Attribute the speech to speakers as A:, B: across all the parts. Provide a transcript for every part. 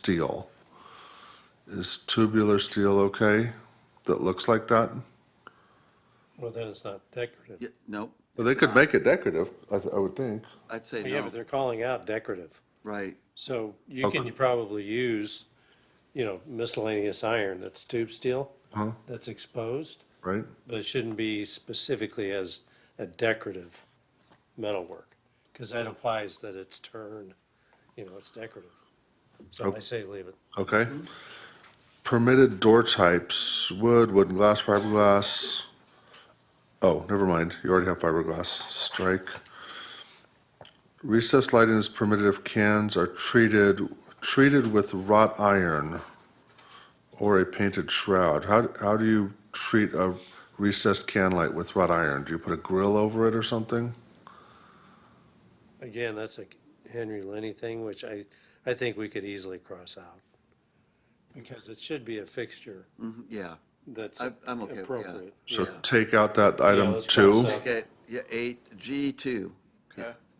A: steel. Is tubular steel okay that looks like that?
B: Well, then it's not decorative.
C: Yeah, no.
A: Well, they
C: it's
A: could
C: not.
A: make it decorative, I, th- I would think.
C: I'd
D: Oh,
C: say
B: Yeah,
C: no,
B: but they're calling out decorative.
C: right,
B: So you
A: Okay.
B: can probably use, you know, miscellaneous iron that's tube steel, that's exposed,
A: Right?
B: but it shouldn't be specifically as a decorative metalwork, because that implies that it's turned, you know, it's decorative. So I say leave it.
A: Okay. Permitted door types wood, wooden glass, fiberglass. Oh, never mind. You already have fiberglass. Strike. Recessed lighting is permitted if cans are treated treated with wrought iron or a painted shroud. How, how do you treat a recessed can light with wrought iron? Do you put a grill over it or something?
B: Again, that's a Henry Lenny thing, which I, I think we could easily cross out. Because it should be a fixture
C: Mhm, yeah.
B: that's
C: I- I'm okay with- yeah.
B: appropriate.
A: So
C: Yeah.
A: take out that item
B: let's cross
A: two.
B: that.
C: Okay, yeah, eight, G two,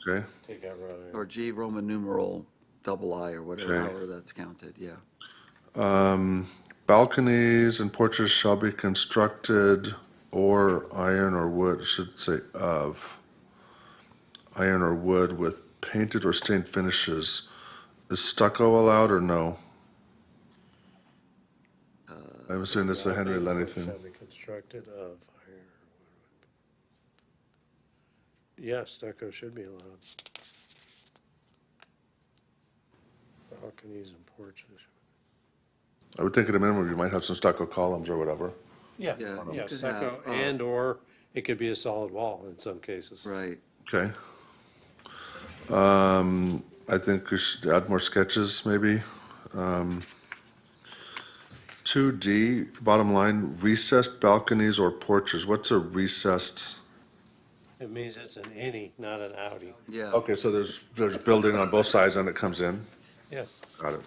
A: Okay.
B: Take out wrought iron.
C: or G Roman numeral double I or whatever,
A: Okay.
C: however that's counted, yeah.
A: Balconies and porches shall be constructed or iron or wood, I should say of, iron or wood with painted or stained finishes. Is stucco allowed or no? I'm assuming it's the uh, Henry Lenny thing.
B: Shall be constructed of iron. or wood. Yeah, stucco should be allowed. Balconies and porches.
A: I would think at a minimum, you might have some stucco columns or whatever.
B: Yeah,
C: Yeah, you
B: yeah,
C: could
B: stucco
C: have, uh,
B: and/or it could be a solid wall in some cases.
C: Right,
A: Okay. Um, I think we should add more sketches, maybe. Um, Two D, bottom line, recessed balconies or porches. What's a recessed?
B: It means it's an innie, not an outie.
C: yeah.
A: Okay, so there's, there's building on both sides and it comes in.
B: Yeah,
A: Got it.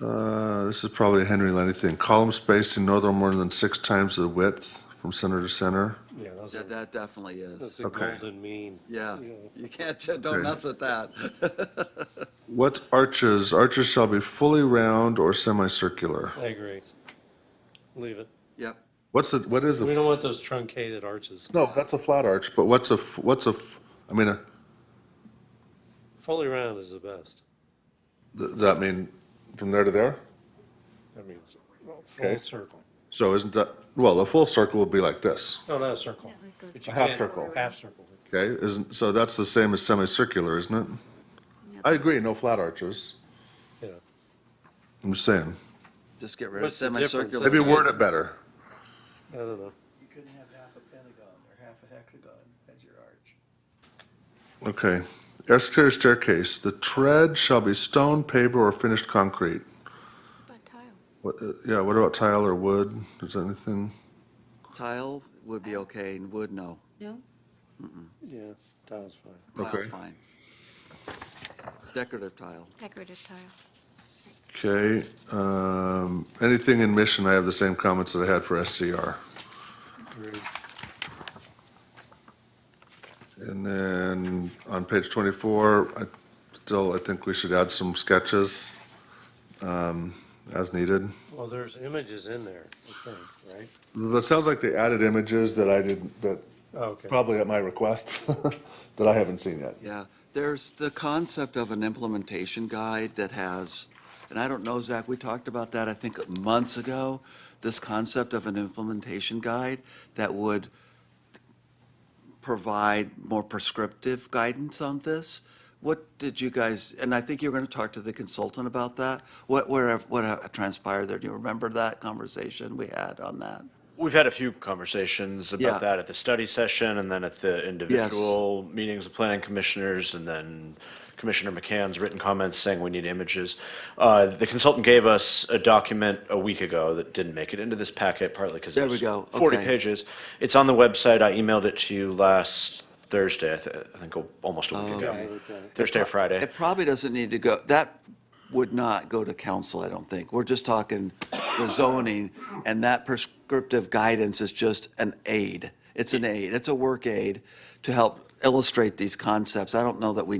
A: Uh, This is probably a Henry Lenny thing. Column spaced in northern more than six times the width from center to center.
B: yeah, those are,
C: That, that definitely
B: that's
C: is,
B: a
A: Okay.
B: golden mean.
C: yeah.
B: you know.
C: You can't, don't mess with that.
A: What arches? Arches shall be fully round or semicircular.
B: I agree. Leave it.
C: Yep,
A: What's the, what is
B: We
A: a,
B: don't want those truncated arches.
A: no, that's a flat arch, but what's a, f- what's a, f- I mean, uh, a-
B: Fully round is the best.
A: th- does that mean from there to there?
B: That means
A: Okay.
B: full circle.
A: So isn't that, well, a full circle would be like this,
B: No, not a circle.
E: That goes-
B: But you
A: A half
B: can't-
A: circle.
B: Half circle.
A: okay? Isn't, so that's the same as semicircular, isn't it? I agree, no flat arches.
B: Yeah.
A: I'm just saying,
C: just get rid of
B: What's the difference?
C: semicircular.
A: maybe word it better.
B: I don't know.
D: You couldn't have half a pentagon or half a hexagon as your arch.
A: Okay. Exterior staircase, the tread shall be stone, paper, or finished concrete.
E: But tile.
A: What, uh, yeah, what about tile or wood? Is there anything?
C: Tile would be okay, and wood, no.
E: No?
B: Yeah, tile's fine.
A: Okay.
C: Tile's fine. Decorative tile,
E: Decorative tile.
A: Okay, um, anything in mission, I have the same comments that I had for SCR.
B: Agreed.
A: And then on page twenty-four, I still, I think we should add some sketches, um, as needed.
B: Well, there's images in there, I think, right?
A: That sounds like they added images that I didn't, that,
B: Oh, Okay.
A: probably at my request, that I haven't seen yet.
C: yeah. There's the concept of an implementation guide that has, and I don't know, Zach, we talked about that, I think, months ago, this concept of an implementation guide that would provide more prescriptive guidance on this. What did you guys, and I think you were going to talk to the consultant about that. What, what, what transpired there? Do you remember that conversation we had on that?
F: We've had a few conversations
C: Yeah.
F: about that at the study session and then at the individual meetings of planning commissioners and then Commissioner McCann's written comments saying we need images. Uh, The consultant gave us a document a week ago that didn't make it into this packet partly because
C: There
F: it
C: we
F: was
C: go.
F: 40
C: Okay.
F: pages. It's on the website. I emailed it to you last Thursday, I thi- I think, almost a
C: Oh,
F: week ago. Thursday or Friday.
C: It probably doesn't need to go, that would not go to council, I don't think. We're just talking the zoning, and that prescriptive guidance is just an aid. It's an aid, it's a work aid to help illustrate these concepts. I don't know that we